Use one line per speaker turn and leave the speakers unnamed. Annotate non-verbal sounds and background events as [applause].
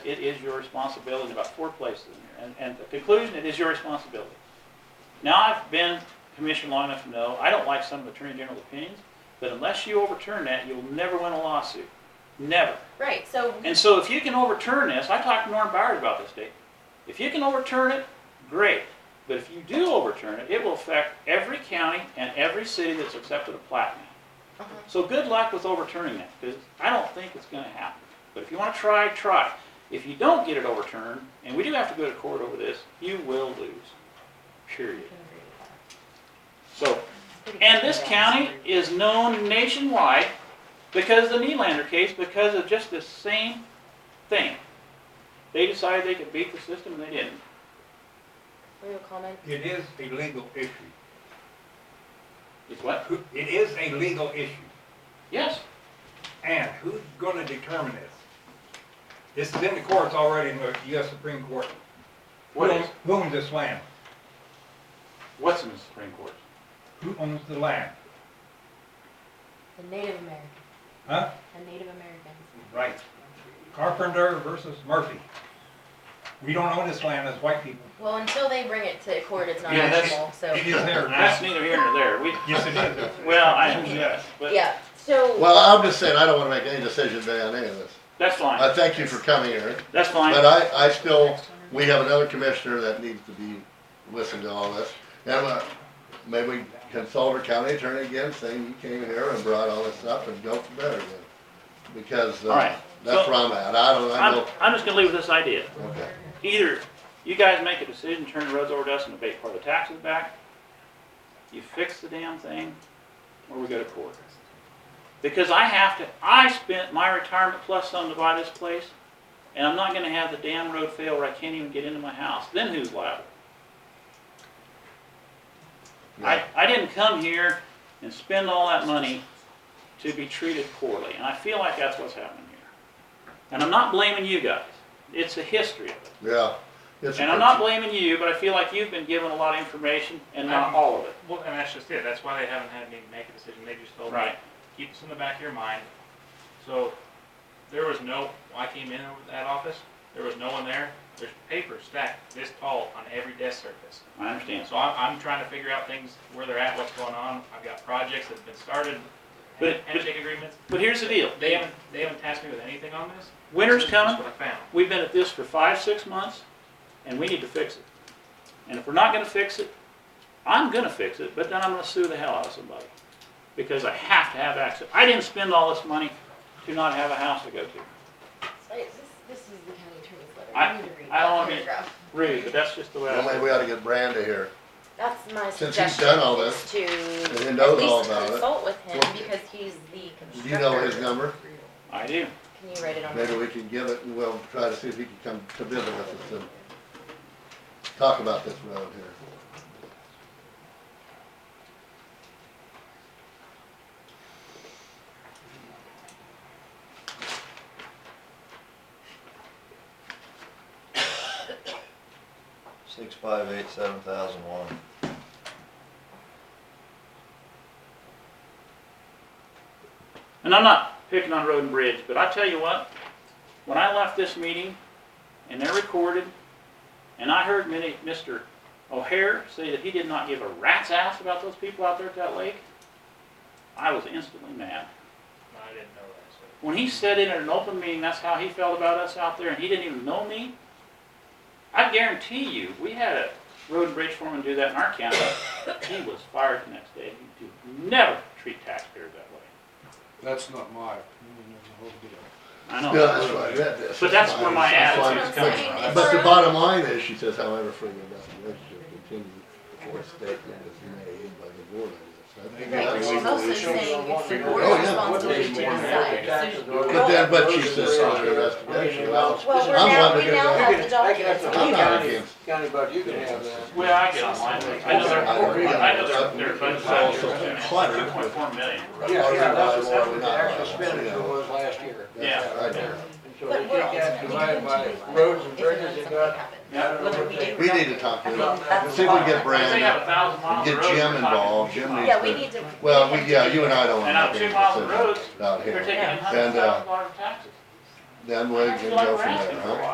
It is your responsibility, in about four places in here. And, and the conclusion, it is your responsibility. Now, I've been commissioned long enough to know, I don't like some of Attorney General's opinions, but unless you overturn that, you'll never win a lawsuit. Never.
Right, so,
And so if you can overturn this, I talked to Norm Byers about this, Dave. If you can overturn it, great. But if you do overturn it, it will affect every county and every city that's accepted a plat now.
Uh-huh.
So good luck with overturning that, because I don't think it's gonna happen. But if you wanna try, try. If you don't get it overturned, and we do have to go to court over this, you will lose, period. So, and this county is known nationwide because of the Nylander case, because of just the same thing. They decided they could beat the system and they didn't.
we have a comment?
It is a legal issue.
It's what?
Who- It is a legal issue.
Yes,
And who's gonna determine this? This is in the courts already in the US Supreme Court.
what
Who
is,
owns- Who owns this land?
what's in the Supreme Court?
Who owns the land?
The Native American,
Huh?
the Native Americans.
Right. Carpenter versus Murphy. We don't own this land as white people.
Well, until they bring it to court, it's not
Yeah, that's-
actionable, so,
It is
[laughs]
there
That's
now.
neither here nor there. We,
Yes, it is.
well, I,
Yes.
but
yeah, so,
Well, I'm just saying, I don't wanna make any decision today on any of this.
that's
I
fine,
thank you for coming here,
that's
but uh,
fine.
I, I still, we have another commissioner that needs to be, listened to all this. And, uh, maybe we consult our county attorney again, saying you came here and brought all this up and go from there again. Because,
All right,
uh, that's
so-
where I'm at, I don't, I
I'm,
know,
I'm just gonna leave with this idea.
okay.
Either you guys make a decision, turn the roads over to us and abate part of the taxes back, you fix the damn thing, or we go to court. Because I have to, I spent my retirement plus some to buy this place, and I'm not gonna have the damn road fail where I can't even get into my house, then who's liable? I, I didn't come here and spend all that money to be treated poorly, and I feel like that's what's happening here. And I'm not blaming you guys, it's the history of it.
Yeah. It's a
And I'm not blaming you, but I feel like you've been given a lot of information and not all of it.
Well, and that's just it. That's why they haven't had me make a decision. They just told me,
Right.
keep this in the back of your mind. So there was no, when I came in over that office, there was no one there. There's paper stacked this tall on every desk surface.
I understand.
So I'm, I'm trying to figure out things, where they're at, what's going on. I've got projects that have been started,
But-
handshake agreements.
But here's the deal.
They haven't, they haven't tasked me with anything on this.
Winter's
This is
coming.
what I found.
We've been at this for five, six months, and we need to fix it. And if we're not gonna fix it, I'm gonna fix it, but then I'm gonna sue the hell out of somebody. Because I have to have access. I didn't spend all this money to not have a house to go to.
Wait, this, this is the county attorney's letter,
I-
I need to read
I don't
that
wanna be-
paragraph.
Rude, but that's just the way I.
Well, maybe we ought to get Branda here.
That's my
Since he's
suggestion.
done all
is To
and he
at
knows all
least
about it.
consult with him,
Well,
because he's the
Do
constructor.
you know his number?
I do.
Can you write it on?
Maybe
there?
we can give it and we'll try to see if he can come to visit with us and talk about this road here.
Six five eight seven thousand one.
And I'm not picking on Road and Bridge, but I tell you what, when I left this meeting, and they're recorded, and I heard many, Mr. O'Hare say that he did not give a rat's ass about those people out there at that lake, I was instantly mad.
No, I didn't know that, so.
When he said it in an open meeting, that's how he felt about us out there, and he didn't even know me, I guarantee you, we had a road and bridge foreman do that in our county, he was fired the next day. You do never treat taxpayers that way.
That's not my opinion of the whole deal.
I know.
Yeah, that's right. That-
But that's where my
that's
attitude
why-
is coming from.
That's
But
what I'm saying,
the
it's-
bottom line is, she says, however, further investigation will continue before a statement is made by the board. I guess. I think
Right,
that's-
she's also saying it's the board's
Oh, yeah.
responsibility to decide.
But then, but she says under investigation, well,
Well, we're
I'm
now,
wondering
we now
if-
have the documents.
I'm
We
not
know.
against-
County budget, you can have that.
Well, I get online, I know they're, I know they're, they're budgeted last year, two point four million.
Yeah, yeah, that's, that was the actual expenditure was last year.
Yeah.
I know.
And so they
But we're
take that
ultimately
divided
going to
by
be
roads
liable
and
if and
bridges
when
and
something
got.
happens.
I don't know
Whether
what
we
they-
do.
We need to talk to
I mean,
him.
that's.
See if we
fine.
get Brand-
If they have a thousand miles of
Get
road, we're
Jim
talking
involved. Jim needs
Yeah, we
to-
need to.
Well, we, yeah, you and I don't
And
wanna
out
make
two
any
miles of roads,
decisions out
they're
here.
taking in
And,
hundred
uh,
thousand dollars in taxes.
Then we
I
can
feel like
go
we're
from there,
asking for a
huh?
lot.